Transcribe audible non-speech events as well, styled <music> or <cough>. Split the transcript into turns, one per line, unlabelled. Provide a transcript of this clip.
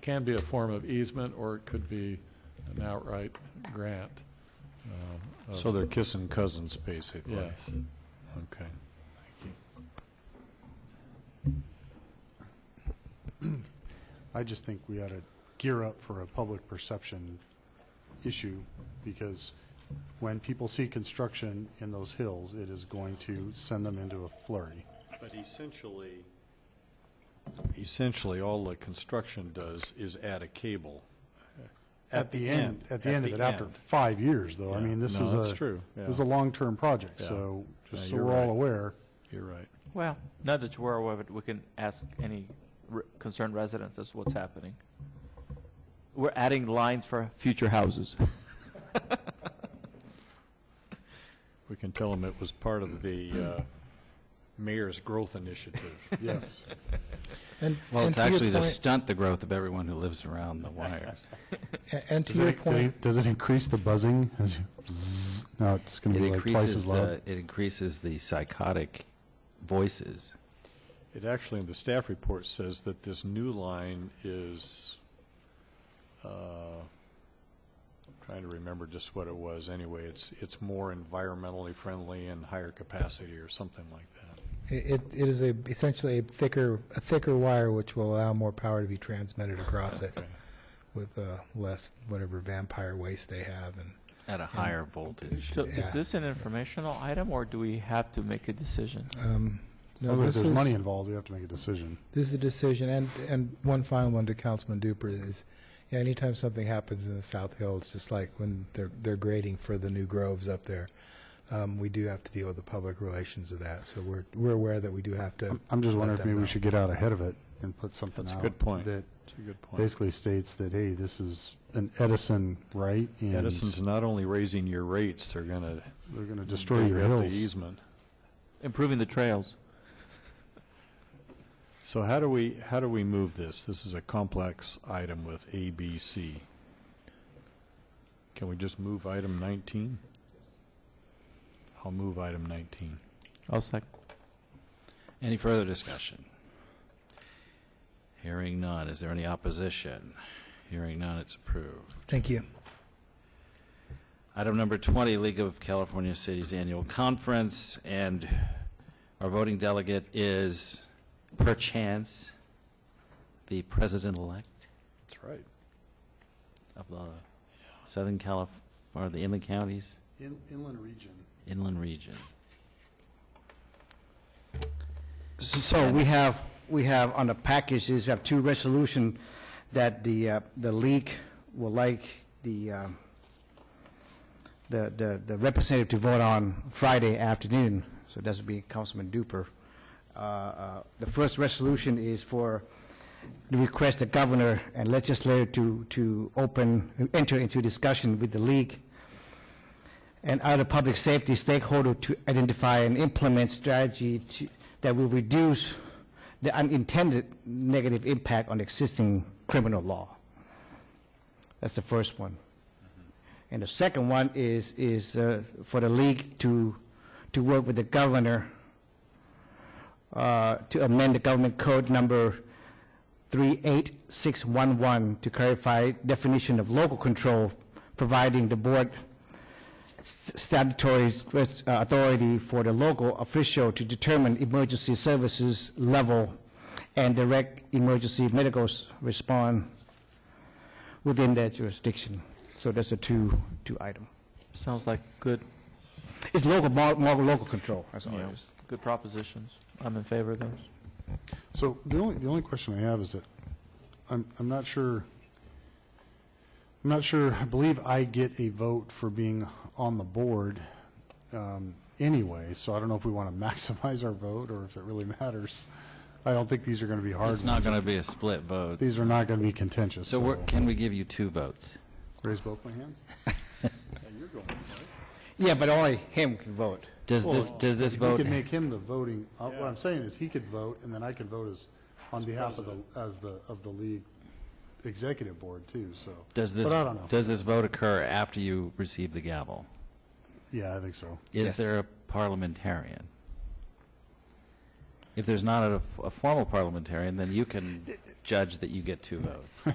can be a form of easement, or it could be an outright grant. um, of-
So they're kissing cousins, basically?
Yes.
Okay.
I just think we ought to gear up for a public perception issue, because when people see construction in those hills, it is going to send them into a flurry.
But essentially, essentially, all the construction does is add a cable.
At the end of it, after
end.
five years, though. I
Yeah.
mean, this
No,
is a.
that's true.
This is a long-term project,
Yeah.
so, just
Yeah,
so
you're
we're all
right.
aware.
You're right.
Well, now that you're aware of it, we can ask any re- concerned residents as to what's happening. We're adding lines for future houses.
We can tell them it was part of the uh, mayor's growth initiative. <laughs>
Yes.
And-
Well,
and
it's
to your
actually to
point-
stunt the growth of everyone who lives around the wires.
a- And to
Does
your
it,
point,
does it increase the buzzing? as you- Bzzz. No, it's going to
It
be Mm-hmm. like twice
increases,
as loud.
the- it increases the psychotic voices.
It actually, in the staff report, says that this new line is, uh, trying to remember just what it was, anyway, it's, it's more environmentally friendly and higher capacity or something like that.
it, it is a, essentially a thicker, a thicker wire which will allow more power to be transmitted across it with uh, less whatever vampire waste they have and
At a higher voltage.
So
Yeah.
is this an informational item, or do we have to make a decision?
um, no,
Sounds like
this
there's
is-
money involved, we have to make a decision.
This is a decision, and, and one final one to Councilman Duper is, yeah, anytime something happens in the South Hill, it's just like when they're, they're grading for the new groves up there. Um, we do have to deal with the public relations of that, so we're, we're aware that we do have to.
I'm- I'm just
let
wondering if
them
maybe we
know.
should get out ahead of it and put something out.
That's a good point.
That
That's a good point.
basically states that, hey, this is an Edison right, and
Edison's not only raising your rates, they're going to
they're going to destroy your hills.
easement.
Improving the trails.
So how do we, how do we move this? This is a complex item with A, B, C. Can we just move item 19? I'll move item 19.
I'll second.
Any further discussion? Hearing none. Is there any opposition? Hearing none, it's approved.
Thank you.
Item number 20, League of California Cities Annual Conference, and our voting delegate is perchance the president-elect
That's right.
of the Southern Calif, or the inland counties,
In- Inland region.
inland region.
So we have, we have on the packages, we have two resolution that the, uh, the league will like the, uh, the, the the representative to vote on Friday afternoon. So that would be Councilman Duper. Uh, uh, The first resolution is for the request the governor and legislature to, to open, enter into discussion with the league and other public safety stakeholder to identify and implement strategy to, that will reduce the unintended negative impact on existing criminal law. That's the first one. And the second one is, is uh, for the league to, to work with the governor uh, to amend the government code number 38611 to clarify definition of local control, providing the board st- statutory res- uh, authority for the local official to determine emergency services level and direct emergency medical s- response within that jurisdiction. So that's the two, two item.
Sounds like good,
It's local, more, more local control, that's all
you
it
know,
is.
good propositions. I'm in favor of those.
So the only, the only question I have is that, I'm, I'm not sure, I'm not sure, I believe I get a vote for being on the board um, anyway, so I don't know if we want to <laughs> maximize our vote or if it really matters. I don't think these are going to be hard
It's not
ones.
going to be a split vote.
These are not going to be contentious,
So
so.
we're- can we give you two votes?
Raise both my hands?
Yeah, but only him can vote.
Does this, does this
We
vote?
could make him the voting, uh, what I'm saying is he could vote, and then I could vote as, on behalf of the, as the, of the league executive board too, so.
Does this,
But I don't know.
does this vote occur after you receive the gavel?
Yeah, I think so.
Is
Yes.
there a parliamentarian? If there's not a, a formal parliamentarian, then you can judge that you get two votes.